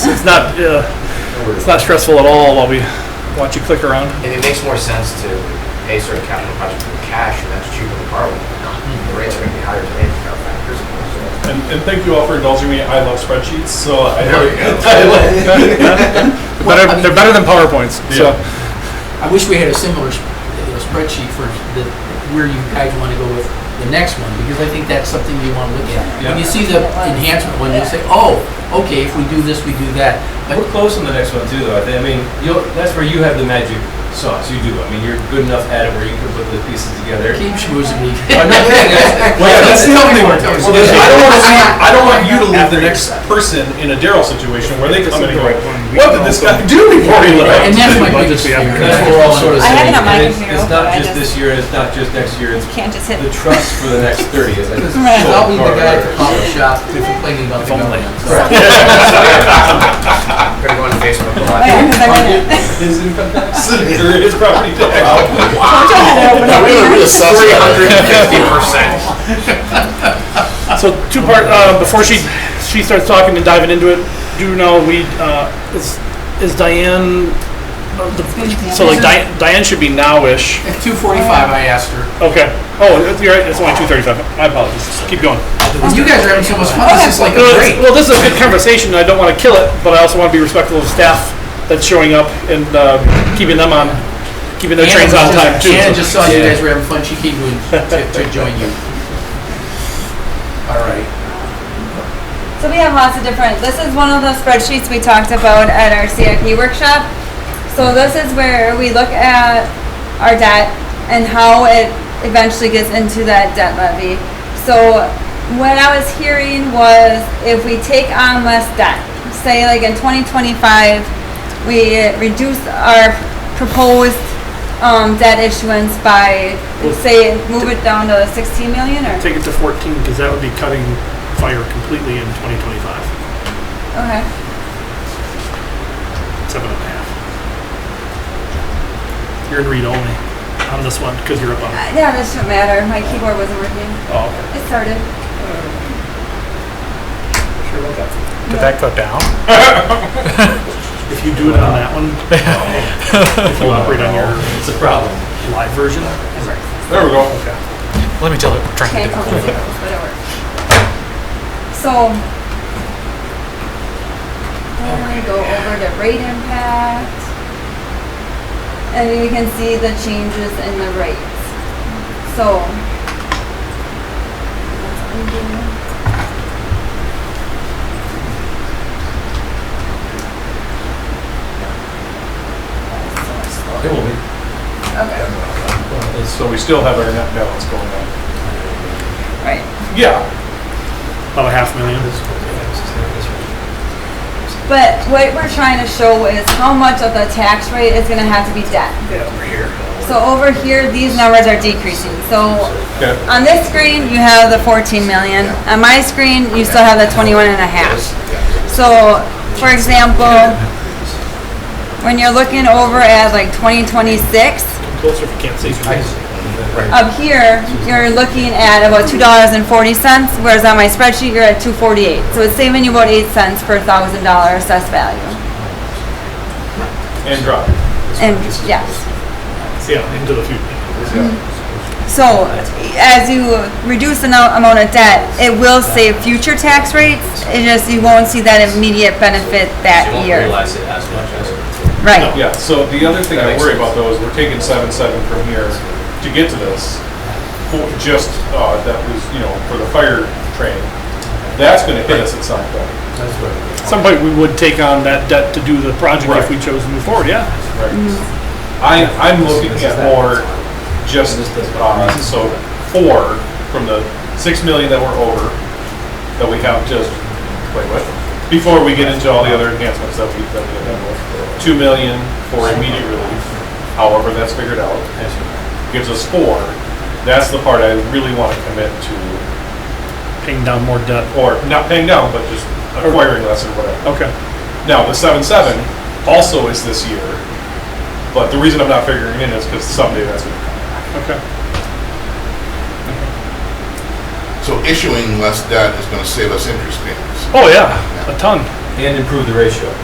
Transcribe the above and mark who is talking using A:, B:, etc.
A: It's not, uh, it's not stressful at all while we watch you click around.
B: And it makes more sense to pay certain capital projects with cash, and that's cheaper than borrowing. The rates are gonna be higher today for our factors.
C: And, and thank you all for indulging me. I love spreadsheets, so I
B: There we go.
A: Better, they're better than PowerPoints, so.
D: I wish we had a similar s- you know, spreadsheet for the, where you guys want to go with the next one, because I think that's something you want to look at. When you see the enhancement one, you'll say, oh, okay, if we do this, we do that. But
E: We're close on the next one too, though. I, think, I mean, you'll, that's where you have the magic sauce. You do. I mean, you're good enough at it where you can put the pieces together.
D: keep schmoozing me.
E: I'm not kidding, guys. Well, yeah, that's the only one.
C: Well, then I don't want to see. I don't want you to leave the next person in a Daryl situation where they come in and go, "What did this guy do before he
D: And
C: left?"
D: that's my
A: Budget
D: biggest
A: we
D: fear.
A: have.
E: And that's what we're all sort of
F: I have
E: saying.
F: it on my
E: and it's,
F: computer,
E: it's not
F: but I
E: just
F: just-
E: this year. It's not just next year. It's
F: Can't just hit.
E: the trust for the next thirty. Is like
D: I'll be the guy at the coffee shop complaining about the
A: only.
D: government. so.
B: I'm gonna go on Facebook a lot.
F: Oh, yeah, 'cause I read it.
C: His income tax or his property tax.
B: Three hundred and fifty percent.
A: So two part, uh, before she, she starts talking and diving into it, do know we, uh, is, is Diane, uh, the- so like Diane, Diane should be nowish.
D: At two forty-five, I asked her,
A: Okay. Oh, it's- you're right, it's only two thirty-five. My apologies. Keep going.
D: and you guys are having so much fun, this is like a
A: No, it's-
D: break.
A: Well, this is a good conversation. I don't want to kill it, but I also want to be respectful of staff that's showing up and, uh, keeping them on, keeping their trains on time too.
D: Shannon
A: so-
D: just saw you
E: Yeah.
D: guys were having fun, she came in to, to join you. All right.
F: So we have lots of different, this is one of the spreadsheets we talked about at our CIP workshop. So this is where we look at our debt and how it eventually gets into that debt levy. So what I was hearing was if we take on less debt, say like in twenty twenty-five, we reduce our proposed, um, debt issuance by, say, move it down to sixteen million or?
A: Take it to fourteen, because that would be cutting fire completely in twenty twenty-five,
F: Okay.
A: seven and a half. You're in read only on this one, because you're up on.
F: Uh, Yeah, this doesn't matter. My keyboard wasn't working.
A: Oh, okay.
F: It started.
G: Did that go down?
A: If you do it on that one, if you operate on your
E: it's a problem.
A: live version,
C: There we go.
G: Let me tell you what we're trying to do.
F: Can't tell the zeros, but it worked. So, then we go over to rate impact. And you can see the changes in the rates. So, let's undo.
E: It will be.
C: uh, So we still have our net balance going on.
F: right.
C: Yeah.
A: about a half million.
F: But what we're trying to show is how much of the tax rate is gonna have to be debt. So over here, these numbers are decreasing. So
C: Okay.
F: on this screen, you have the 14 million. On my screen, you still have the 21 and a half. So, for example, when you're looking over at like 2026,
A: Closer if you can't see.
F: up here, you're looking at about two dollars and forty cents, whereas on my spreadsheet, you're at two forty-eight. So it's saving you about eight cents per thousand dollar assessed value.
C: And drop.
F: And, yes.
A: Yeah, into the future.
F: So as you reduce the no- amount of debt, it will save future tax rates. It just, you won't see that immediate benefit that
E: You won't
F: year.
E: realize it as much as.
F: Right.
C: Yeah, so the other thing
E: That
C: I
E: makes
C: worry
E: sense.
C: about though is we're taking seven seven from here to get to this. for- Just, uh, that was, you know, for the fire train. That's gonna hit us at some point,
E: That's right.
A: At some point, we would take on that debt to do the project if
C: Right.
A: we chose to move forward, yeah.
C: right? I, I'm looking
E: This is
C: at
E: that.
C: more just,
E: This does-
C: uh, so four from the six million that we're over, that we have just, wait, what? Before we get into all the other enhancements that we, that we have, with. two million for immediate relief, however that's figured out. gives us four, that's the part I really want to commit to,
A: Paying down more debt.
C: or not paying down, but just acquiring less or whatever.
A: Okay.
C: Now, the seven seven also is this year, but the reason I'm not figuring it in is because someday that's gonna come.
A: Okay.
H: So issuing less debt is gonna save us interest payments.
A: Oh yeah, a ton.
E: and improve the ratio.